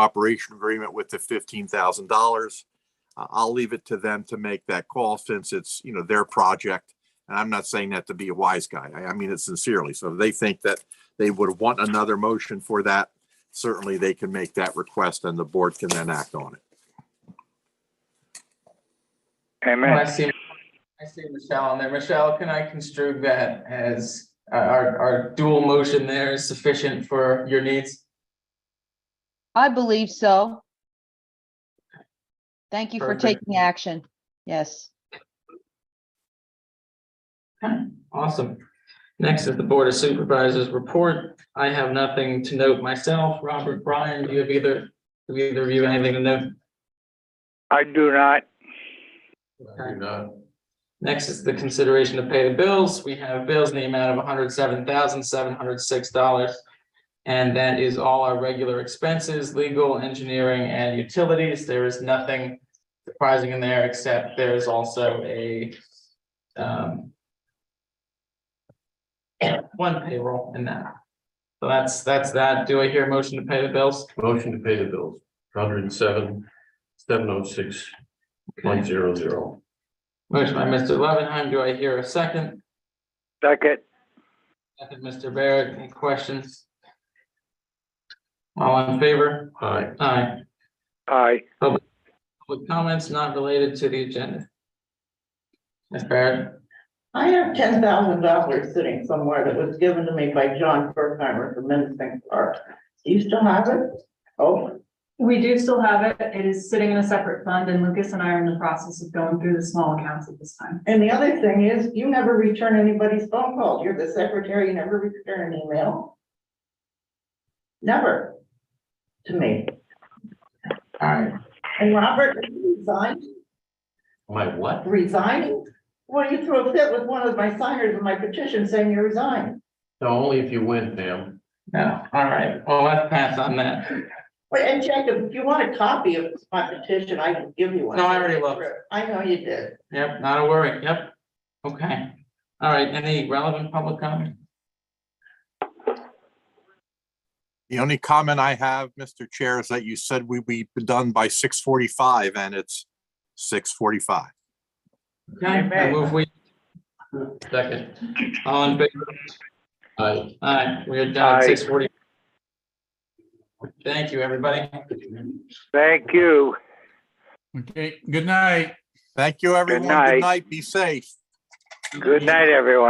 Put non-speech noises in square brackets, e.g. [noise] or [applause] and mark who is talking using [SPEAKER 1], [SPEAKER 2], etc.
[SPEAKER 1] cooperation agreement with the fifteen thousand dollars. I'll leave it to them to make that call since it's, you know, their project. And I'm not saying that to be a wise guy. I, I mean it sincerely. So if they think that they would want another motion for that. Certainly, they can make that request and the board can then act on it.
[SPEAKER 2] Amen.
[SPEAKER 3] I see, I see Michelle on there. Michelle, can I construe that as uh, our, our dual motion there is sufficient for your needs?
[SPEAKER 4] I believe so. Thank you for
[SPEAKER 3] Perfect.
[SPEAKER 4] taking action. Yes.
[SPEAKER 3] Awesome. Next is the Board of Supervisors report. I have nothing to note myself. Robert, Brian, do you have either, do either of you have anything to note?
[SPEAKER 2] I do not.
[SPEAKER 3] uh, Next is the consideration to pay the bills. We have bills in the amount of hundred seven thousand, seven hundred six dollars. And that is all our regular expenses, legal, engineering, and utilities. There is nothing surprising in there, except there's also a um [coughs] one payroll in that. So that's, that's that. Do I hear a motion to pay the bills?
[SPEAKER 5] Motion to pay the bills, hundred and seven, seven oh six, point zero zero.
[SPEAKER 3] Motion by Mr. Levenheim. Do I hear a second?
[SPEAKER 2] Second.
[SPEAKER 3] Second, Mr. Barrett, any questions? All in favor?
[SPEAKER 5] Aye.
[SPEAKER 3] Aye.
[SPEAKER 2] Aye.
[SPEAKER 3] Public comments not related to the agenda. Ms. Barrett,
[SPEAKER 6] I have ten thousand dollars sitting somewhere that was given to me by John Bergheimer from Menacing Park. Do you still have it? Oh,
[SPEAKER 7] We do still have it. It is sitting in a separate fund and Lucas and I are in the process of going through the small accounts at this time.
[SPEAKER 6] and the other thing is, you never return anybody's phone calls. You're the secretary, you never return an email. Never. To me.
[SPEAKER 3] all right,
[SPEAKER 6] And Robert, are you resigning,
[SPEAKER 5] My what?
[SPEAKER 6] resigning? Well, you threw a fit with one of my signers in my petition saying you resigned.
[SPEAKER 5] No, only if you win, ma'am.
[SPEAKER 3] no, all right, well, let's pass on that.
[SPEAKER 6] Wait, and Jacob, if you want a copy of my petition, I can give you one.
[SPEAKER 3] No, I already looked.
[SPEAKER 6] I know you did.
[SPEAKER 3] Yep, not a worry, yep. Okay, all right, any relevant public comment?
[SPEAKER 1] The only comment I have, Mr. Chair, is that you said we be done by six forty-five and it's six forty-five.
[SPEAKER 3] Okay, I move we,
[SPEAKER 5] Second.
[SPEAKER 3] all in favor?
[SPEAKER 5] Aye.
[SPEAKER 3] Aye, we are done at
[SPEAKER 2] Aye.
[SPEAKER 3] six forty. Thank you, everybody.
[SPEAKER 2] Thank you.
[SPEAKER 8] Okay, good night.
[SPEAKER 1] Thank you, everyone.
[SPEAKER 2] night.
[SPEAKER 1] Good night. Be safe.
[SPEAKER 2] Good night, everyone.